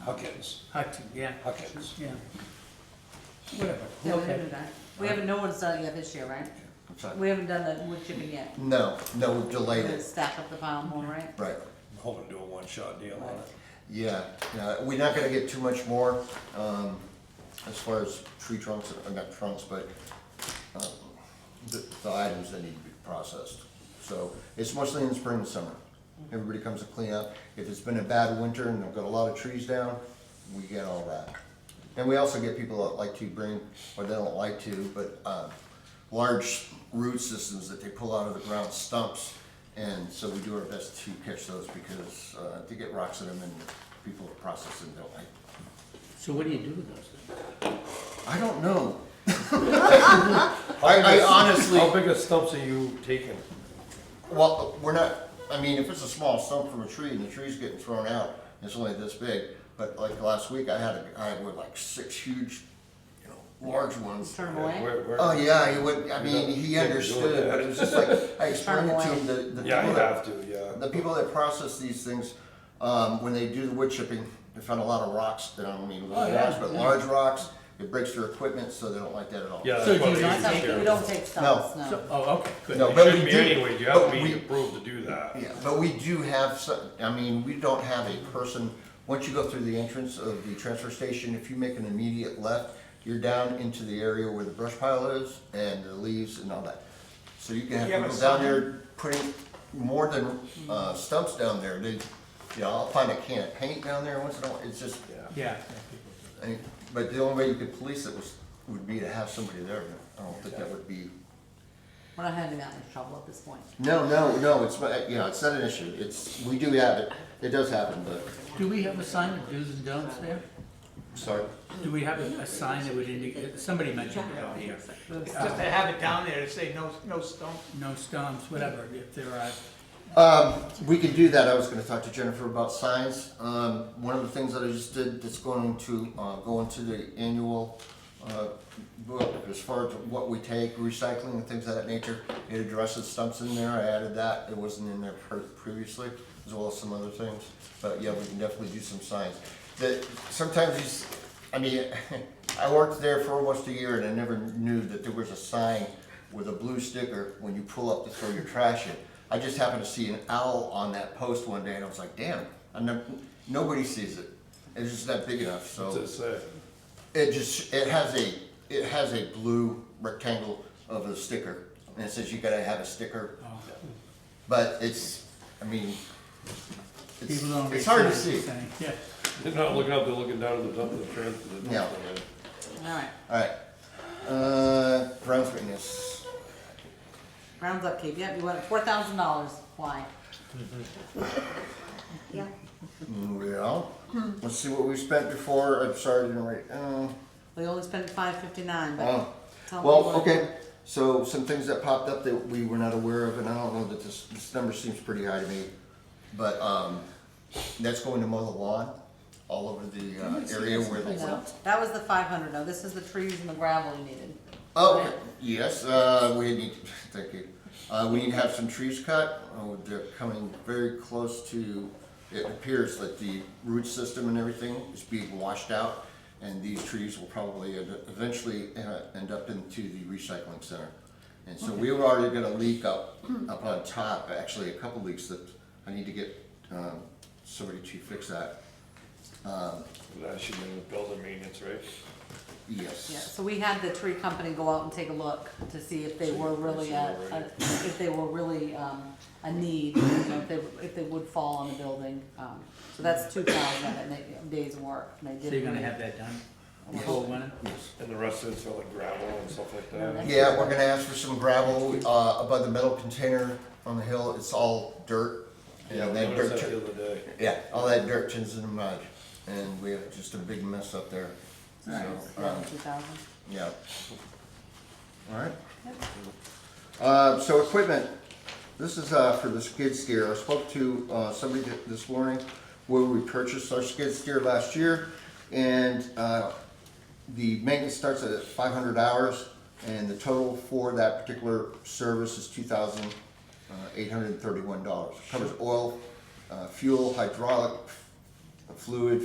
Huckins, Hudson, yeah, Huckins. yeah. Whatever. Yeah, we Okay. haven't done that. We haven't, no one's done it yet this year, right? I'm sorry. We haven't done the wood chipping yet. No, no, we've delayed The it, stack up the pile more, right? right. I'm hoping to do a one-shot deal on it. Yeah, yeah, we're not gonna get too much more, um, as far as tree trunks, or not trunks, but, um, the, the items that need to be processed. So, it's mostly in the spring and summer. Everybody comes to clean up. If it's been a bad winter and they've got a lot of trees down, we get all that. And we also get people that like to bring, or they don't like to, but, uh, large root systems that they pull out of the ground stumps. And so we do our best to catch those because, uh, they get rocks in them and people process them, don't like. So what do you do with those things? I don't know. I, I honestly. How big a stumps are you taking? Well, we're not, I mean, if it's a small stump from a tree and the tree's getting thrown out, it's only this big, but like last week, I had, a I had with like six huge, you know, large ones. Turn them Yeah, away? where- where- Oh, yeah, he would, I mean, he Yeah, you do understood, that. but it was just like, I explained it to him, the, the Yeah, you people that- have to, yeah. the people that process these things, um, when they do the wood chipping, they found a lot of rocks, that I don't mean little Oh, yeah, rocks, but yeah. large rocks, it breaks their equipment, so they don't like that at all. Yeah, that's So do why you we use not take- the Like, carrier. we don't take stumps, no. So, oh, okay, good. No, It But shouldn't we be do- anyway, you but have to be we- approved to do that. Yeah, but we do have some, I mean, we don't have a person, once you go through the entrance of the transfer station, if you make an immediate left, you're down into the area where the brush pile is and the leaves and all that. So you can have You have a people down sign? there putting more than, uh, stumps down there, they, you know, I'll find a can of paint down there once in a while, it's just, Yeah. I mean, but the only way you could police it was, would be to have somebody there, I don't think that would be. We're not having that much trouble at this point. No, no, no, it's, uh, you know, it's not an issue, it's, we do have it, it does happen, but. Do we have a sign of do's and don'ts there? Sorry? Do we have a, a sign that would indicate, somebody mentioned it out here, Just to have it down there to say no, no stone. no stumps, whatever, if there are, Um, we can do that, I was gonna talk to Jennifer about signs, um, one of the things that I just did that's going to, uh, go into the annual, uh, book, as far as what we take, recycling and things of that nature, it addresses stumps in there, I added that, it wasn't in there pre- previously, as well as some other things, but yeah, we can definitely do some signs. That, sometimes these, I mean, I worked there for almost a year and I never knew that there was a sign with a blue sticker when you pull up to throw your trash in. I just happened to see an owl on that post one day and I was like, damn, I never, nobody sees it. It's just not big enough, so. What's it say? It just, it has a, it has a blue rectangle of a sticker, and it says you gotta have a sticker, oh, but it's, I mean, it's, people don't. it's hard to read signs, see. saying, Yeah. They're not looking up, they're looking down at the dump, the trans. the dump. Yeah. All right, Alright, uh, Brown's Witness, rounds up, Keith. Yep, you want four thousand dollars. Why? Yeah. well, let's see what we spent before, I'm sorry, I didn't write, uh, We only spent five fifty-nine, but. oh. tell me Well, what- okay, so some things that popped up that we were not aware of, and I don't know that this, this number seems pretty high to me, but, um, that's going to mow the lawn all over the, uh, area where the. No, that was the five hundred, no, this is the trees and the gravel you needed. Oh, yes, uh, we need, thank you, uh, we need to have some trees cut, oh, they're coming very close to, it appears that the root system and everything is being washed out, and these trees will probably end- eventually uh, end up into the recycling center. And so we were already gonna leak up, up on top, actually, a couple leaks that I need to get, um, somebody to fix that, That should be in the building maintenance, right? yes. Yeah, so we had the tree company go out and take a look to see if they were really a, a- if they were really, um, a need, you know, if they, if they would fall on the building. Um, So that's two thousand and they, days work, and they So did. you're gonna have that done, Yes. before winter? And the rest of it's all like gravel and stuff like that. Yeah, we're gonna ask for some gravel, uh, above the metal container on the hill, it's all dirt. Yeah, And we that noticed dirt, that the tur- other day. yeah, all that dirt turns into mud, and we have just a big mess up there. So, um, Two thousand. yeah. Alright. Uh, so equipment, this is, uh, for the skid steer, I spoke to, uh, somebody th- this morning where we purchased our skid steer last year, and, uh, the maintenance starts at five hundred hours, and the total for that particular service is two thousand eight hundred and thirty-one dollars. Covers oil, uh, fuel, hydraulic uh, fluid,